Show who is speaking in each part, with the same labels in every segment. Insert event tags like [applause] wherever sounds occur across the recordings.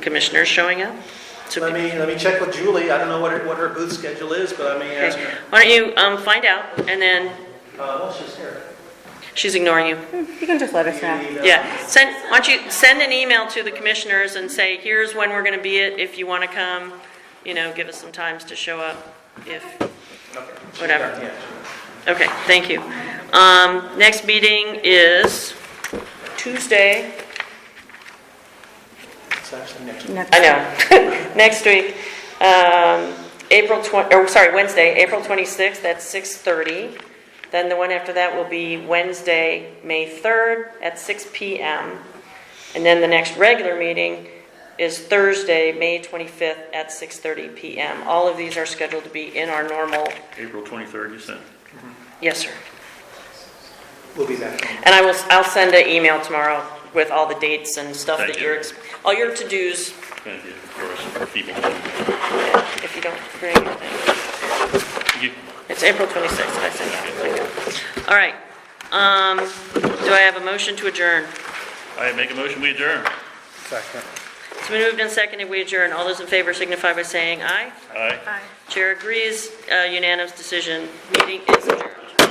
Speaker 1: commissioners showing up? So
Speaker 2: Let me, let me check with Julie, I don't know what her, what her booth schedule is, but I may ask
Speaker 1: Okay.
Speaker 2: her.
Speaker 1: Why don't you um, find out, and then,
Speaker 2: Uh, well, she's here.
Speaker 1: she's ignoring you.
Speaker 3: You can just let us
Speaker 2: You
Speaker 3: know.
Speaker 2: need, uh,
Speaker 1: Yeah, send, why don't you send an email to the commissioners and say, here's when we're going to be it, if you want to come, you know, give us some times to show up, if,
Speaker 2: okay.
Speaker 1: whatever.
Speaker 2: Yeah,
Speaker 1: Okay, thank you. Um, Next meeting is Tuesday,
Speaker 2: it's actually next week.
Speaker 3: Next.
Speaker 1: I know, [laughs] next week, um, April 20, or sorry, Wednesday, April 26th at 6:30. Then the one after that will be Wednesday, May 3rd at 6 PM. And then the next regular meeting is Thursday, May 25th at 6:30 PM. All of these are scheduled to be in our normal,
Speaker 4: April 23rd, you said?
Speaker 1: yes, sir.
Speaker 2: We'll be back.
Speaker 1: And I will, I'll send an email tomorrow with all the dates and stuff
Speaker 4: Thank
Speaker 1: that
Speaker 4: you.
Speaker 1: you're, ex- all your to-dos,
Speaker 4: Thank you, of course, for people. Thank
Speaker 1: if you don't bring anything.
Speaker 4: you.
Speaker 1: It's April 26th, did I say that? Okay. All right. Um, Do I have a motion to adjourn?
Speaker 4: I make a motion, we adjourn.
Speaker 2: Second.
Speaker 1: It's been moved and seconded, we adjourn. All those in favor signify by saying aye.
Speaker 4: Aye.
Speaker 1: Chair agrees, uh, unanimous decision, meeting is adjourned.
Speaker 3: At-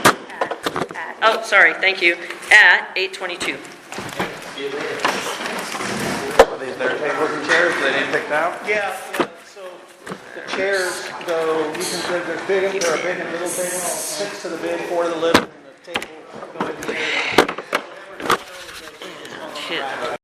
Speaker 3: at-
Speaker 1: Oh, sorry, thank you, at 8:22.
Speaker 2: See you later.
Speaker 5: Are these their tables and chairs they didn't pick out?
Speaker 2: Yeah, yeah, so the chairs go, you can say they're big, they're a big and little table, six to the big, four to the little, and the table. go in the air.
Speaker 1: Kid.